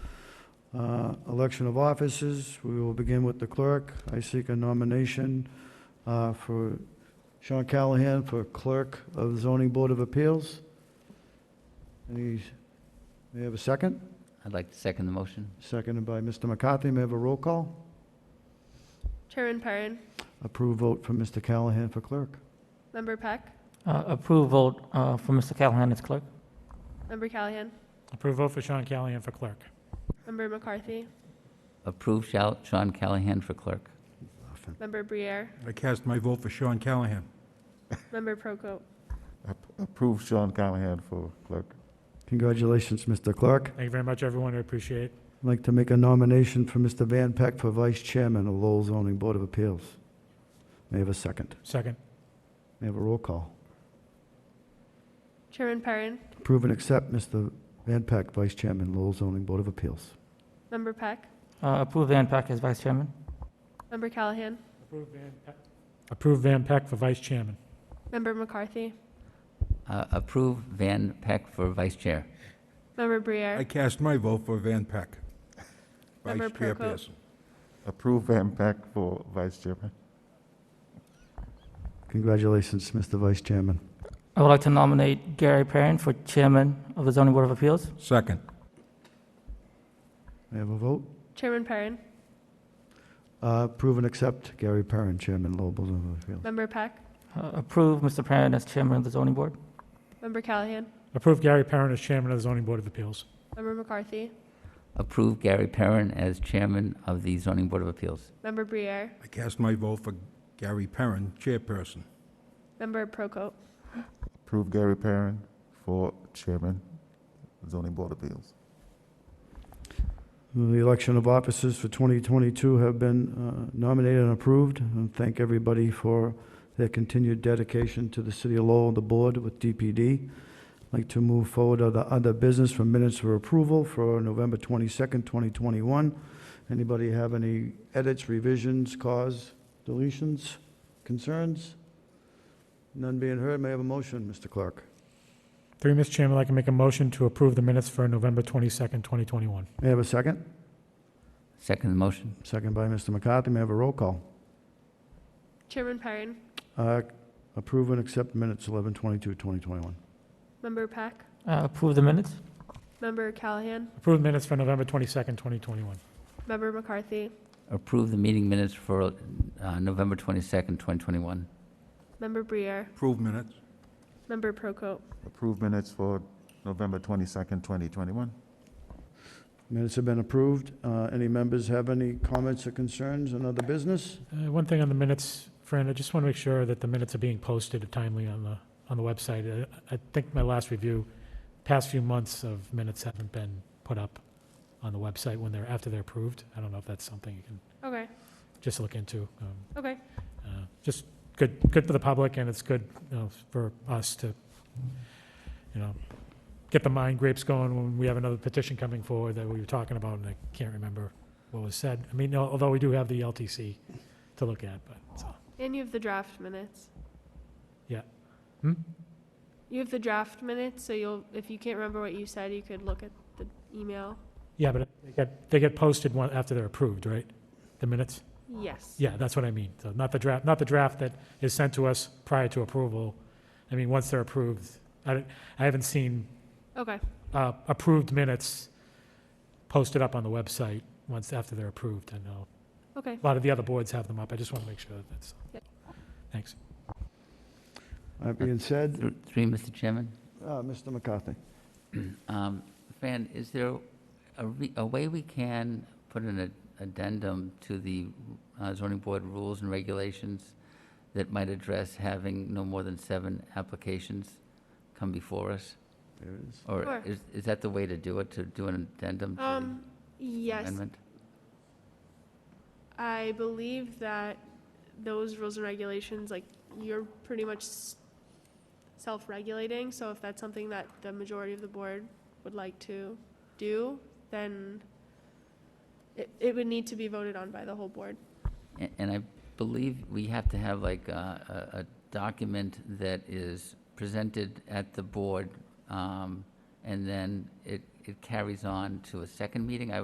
Uh, Election of officers, we will begin with the clerk. I seek a nomination uh, for Sean Callahan for clerk of zoning board of appeals. Any, may I have a second? I'd like to second the motion. Seconded by Mr. McCarthy. May I have a roll call? Chairman Perrin, Approve vote for Mr. Callahan for clerk. Member Peck, Uh, Approve vote uh, for Mr. Callahan as clerk. Member Callahan, Approve vote for Sean Callahan for clerk. Member McCarthy, Approve shout Sean Callahan for clerk. Member Briere, I cast my vote for Sean Callahan. Member Proko. Approve Sean Callahan for clerk. Congratulations, Mr. Clerk. Thank you very much, everyone. I appreciate it. I'd like to make a nomination for Mr. Van Peck for vice chairman of Lowell Zoning Board of Appeals. May I have a second? Second. May I have a roll call? Chairman Perrin, Approve and accept Mr. Van Peck, vice chairman, Lowell Zoning Board of Appeals. Member Peck, Uh, Approve Van Pack as vice chairman. Member Callahan, Approve Van Peck. Approve Van Peck for vice chairman. Member McCarthy, Uh, Approve Van Peck for vice chair. Member I Briere, cast my vote for Van Peck. Vice Member Prokop. chairperson. Approve Van Peck for vice chairman. Congratulations, Mr. vice chairman. I would like to nominate Gary Perrin for chairman of the zoning board of appeals. Second. May I have a vote? Chairman Perrin, Uh, Approve and accept Gary Perrin, chairman, Lowell Zoning Board of Appeals. Member Peck, Uh, Approve Mr. Perrin as chairman of the zoning board. Member Callahan, Approve Gary Perrin as chairman of the zoning board of appeals. Member McCarthy, Approve Gary Perrin as chairman of the zoning board of appeals. Member Briere, I cast my vote for Gary Perrin, chairperson. Member Proko. Approve Gary Perrin for chairman, zoning board appeals. The election of officers for 2022 have been uh, nominated and approved, and thank everybody for their continued dedication to the City of Lowell, and the Board with DPD. I'd like to move forward to the other business for minutes for approval for November 22nd, 2021. Anybody have any edits, revisions, cause, deletions, concerns? None being heard, may I have a motion, Mr. Clerk? Through you, Mr. Chairman, I'd like to make a motion to approve the minutes for November 22nd, 2021. May I have a second? Second the motion. Second by Mr. McCarthy, may I have a roll call? Chairman Perrin, Uh, Approve and accept minutes 11/22/2021. Member Peck, Uh, Approve the minutes. Member Callahan, Approve the minutes for November 22nd, 2021. Member McCarthy, Approve the meeting minutes for uh, November 22nd, 2021. Member Briere, Approve minutes. Member Proko. Approve minutes for November 22nd, 2021. Minutes have been approved. Uh, Any members have any comments or concerns on other business? Uh, One thing on the minutes, Fran, I just want to make sure that the minutes are being posted timely on the, on the website. I I think my last review, past few months of minutes haven't been put up on the website when they're, after they're approved. I don't know if that's something you can Okay, just look into. Um, okay. uh, Just good, good for the public, and it's good, you know, for us to, you know, get the mind grapes going when we have another petition coming forward that we were talking about, and I can't remember what was said. I mean, although we do have the LTC to look at, but, so. And you have the draft minutes. Yeah. Hmm? You have the draft minutes, so you'll, if you can't remember what you said, you could look at the email. Yeah, but they get, they get posted one, after they're approved, right? The minutes? Yes. Yeah, that's what I mean. So not the draft, not the draft that is sent to us prior to approval. I mean, once they're approved, I, don't- I haven't seen, Okay, uh, approved minutes posted up on the website once, after they're approved. I know okay. a lot of the other boards have them up. I just want to make sure that that's, thanks. That being said, Th- Three, Mr. Chairman. uh, Mr. McCarthy. Um, Fran, is there a re- a way we can put an ad- addendum to the uh, zoning board rules and regulations that might address having no more than seven applications come before us? There it is. Or Sure. is is that the way to do it, to do an addendum to Um, the yes, amendment? I believe that those rules and regulations, like, you're pretty much s- self-regulating, so if that's something that the majority of the board would like to do, then it, it would need to be voted on by the whole board. A- And I believe we have to have like a, a- a document that is presented at the board, um, and then it, it carries on to a second meeting. I